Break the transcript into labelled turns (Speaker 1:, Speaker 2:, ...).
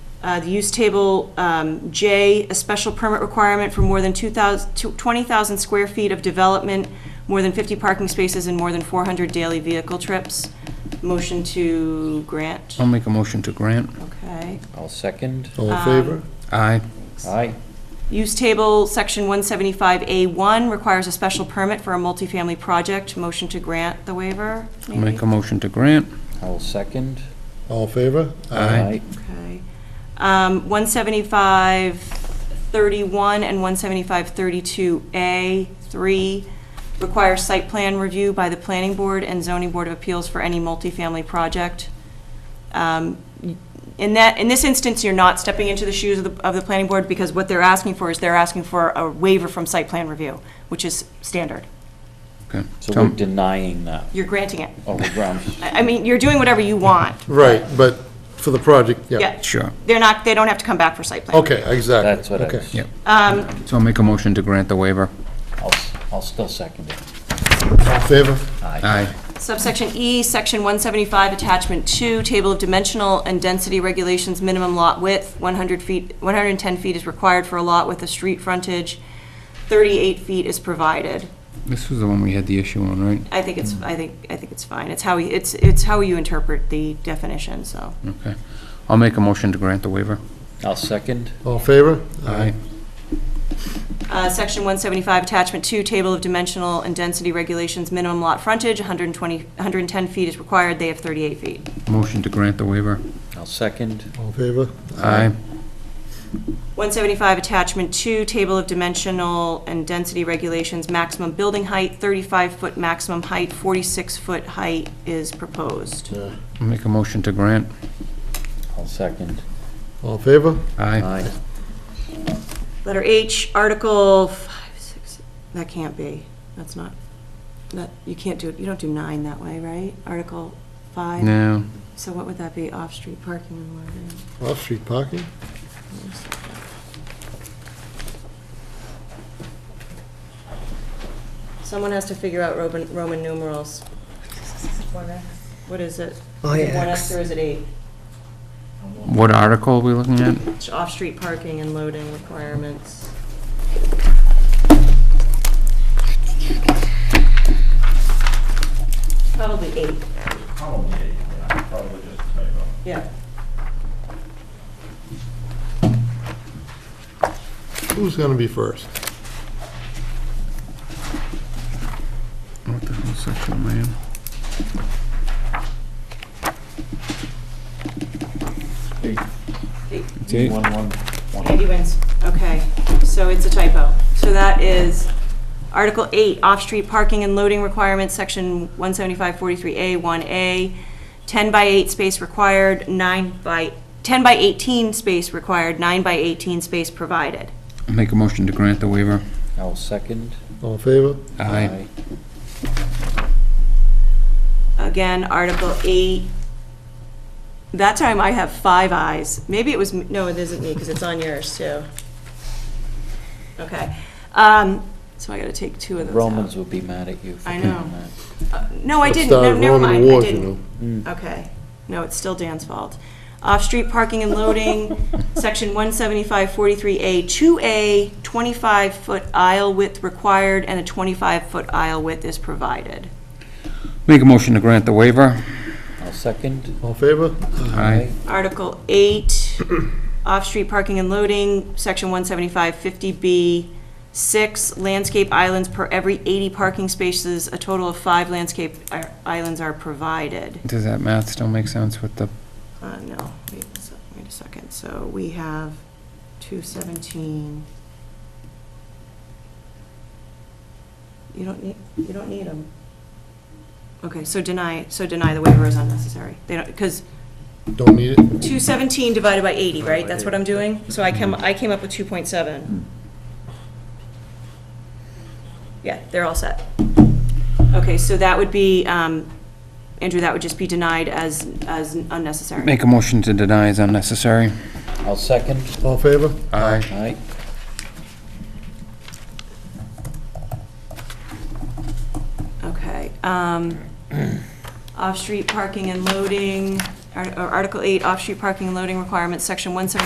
Speaker 1: Uh, The use table, um, J, a special permit requirement for more than 2,000 to- 20,000 square feet of development, more than 50 parking spaces, and more than 400 daily vehicle trips. Motion to grant,
Speaker 2: I'll make a motion to grant.
Speaker 1: okay.
Speaker 3: I'll second.
Speaker 4: All in favor?
Speaker 2: Aye.
Speaker 3: Aye.
Speaker 1: Use table, section 175A1, requires a special permit for a multifamily project. Motion to grant the waiver,
Speaker 2: I'll make
Speaker 1: maybe?
Speaker 2: a motion to grant.
Speaker 3: I'll second.
Speaker 4: All in favor? Uh,
Speaker 2: Aye.
Speaker 1: Okay. Um, 17531 and 17532A, 3, require site plan review by the Planning Board and Zoning Board of Appeals for any multifamily project. Um, In that, in this instance, you're not stepping into the shoes of the, of the Planning Board, because what they're asking for is they're asking for a waiver from site plan review, which is standard.
Speaker 2: Okay.
Speaker 3: So
Speaker 2: Tom-
Speaker 3: we're denying that.
Speaker 1: You're granting it.
Speaker 3: Oh, we're grounds.
Speaker 1: I I mean, you're doing whatever you want.
Speaker 4: Right, but for the project, yeah.
Speaker 1: Yeah.
Speaker 2: Sure,
Speaker 1: They're not, they don't have to come back for site plan. Um,
Speaker 4: Okay, exactly.
Speaker 3: That's what I
Speaker 4: Okay.
Speaker 3: was,
Speaker 2: yeah. So I'll make a motion to grant the waiver.
Speaker 3: I'll, I'll still second it.
Speaker 4: All in favor?
Speaker 2: Aye.
Speaker 1: Subsection E, Section 175, Attachment 2, Table of Dimensional and Density Regulations, minimum lot width, 100 feet, 110 feet is required for a lot with a street frontage, 38 feet is provided.
Speaker 2: This was the one we had the issue on, right?
Speaker 1: I think it's, I think, I think it's fine. It's how, we- it's, it's how you interpret the definition, so.
Speaker 2: Okay. I'll make a motion to grant the waiver.
Speaker 3: I'll second.
Speaker 4: All in favor?
Speaker 1: Uh, Section 175, Attachment 2, Table of Dimensional and Density Regulations, minimum lot frontage, 120, 110 feet is required, they have 38 feet.
Speaker 2: Motion to grant the waiver.
Speaker 3: I'll second.
Speaker 4: All in favor?
Speaker 1: 175, Attachment 2, Table of Dimensional and Density Regulations, maximum building height, 35-foot maximum height, 46-foot height is proposed.
Speaker 4: Uh,
Speaker 2: I'll make a motion to grant.
Speaker 3: I'll second.
Speaker 4: All in favor?
Speaker 2: Aye.
Speaker 3: Aye.
Speaker 1: Letter H, Article 5, 6, that can't be, that's not, that, you can't do, it. you don't do 9 that way, right? Article 5?
Speaker 2: No,
Speaker 1: So what would that be, off-street parking and loitering?
Speaker 4: Off-street parking?
Speaker 1: Someone has to figure out Roman, Roman numerals. What is it?
Speaker 5: Oh,
Speaker 1: Is it One
Speaker 5: yeah.
Speaker 1: X or is it eight?
Speaker 2: what article are we looking at?
Speaker 1: It's Off-street parking and loading requirements. Probably eight,
Speaker 6: Probably, yeah, probably just a typo.
Speaker 1: yeah.
Speaker 4: Who's gonna be first?
Speaker 2: What the hell section am I in? It's eight.
Speaker 3: One, one, one.
Speaker 1: Andy wins. Okay, so it's a typo. So that is Article 8, off-street parking and loading requirements, Section 17543A, 1A, 10 by 8 space required, 9 by, 10 by 18 space required, 9 by 18 space provided.
Speaker 2: I'll make a motion to grant the waiver.
Speaker 3: I'll second.
Speaker 4: All in favor?
Speaker 2: Aye.
Speaker 1: Again, Article 8, that time I have five ayes. Maybe it was, m- no, it isn't me, because it's on yours, too. Okay, um, so I gotta take two of those out.
Speaker 3: Romans will be mad at you for
Speaker 1: I
Speaker 3: doing
Speaker 1: know.
Speaker 3: that.
Speaker 1: Uh, No, I didn't,
Speaker 4: Start
Speaker 1: no,
Speaker 4: with
Speaker 1: never
Speaker 4: Roman
Speaker 1: mind, I
Speaker 4: wars, you Mm.
Speaker 1: didn't. Okay, no, it's still Dan's fault. Off-street parking and loading, section 17543A, 2A, 25-foot aisle width required, and a 25-foot aisle width is provided.
Speaker 2: Make a motion to grant the waiver.
Speaker 3: I'll second.
Speaker 4: All in favor?
Speaker 2: Aye.
Speaker 1: Article 8, off-street parking and loading, section 17550B, 6 landscape islands per every 80 parking spaces, a total of five landscape i- islands are provided.
Speaker 2: Does that math still make sense with the,
Speaker 1: Uh, no, wait, a sec- wait a second, so we have two seventeen. You don't need, you don't need them. Okay, so deny, so deny the waiver is unnecessary, they don't, because
Speaker 4: Don't need it?
Speaker 1: two seventeen divided by eighty, right, that's what I'm doing? So I came, I came up with two point seven. Yeah, they're all set. Okay, so that would be, um, Andrew, that would just be denied as, as unnecessary.
Speaker 2: make a motion to deny is unnecessary.
Speaker 3: I'll second.
Speaker 4: All in favor?
Speaker 2: Aye.
Speaker 3: Aye.
Speaker 1: Okay. um, Off-street parking and loading, Ar- or Article 8, off-street parking and loading requirements, Section 175.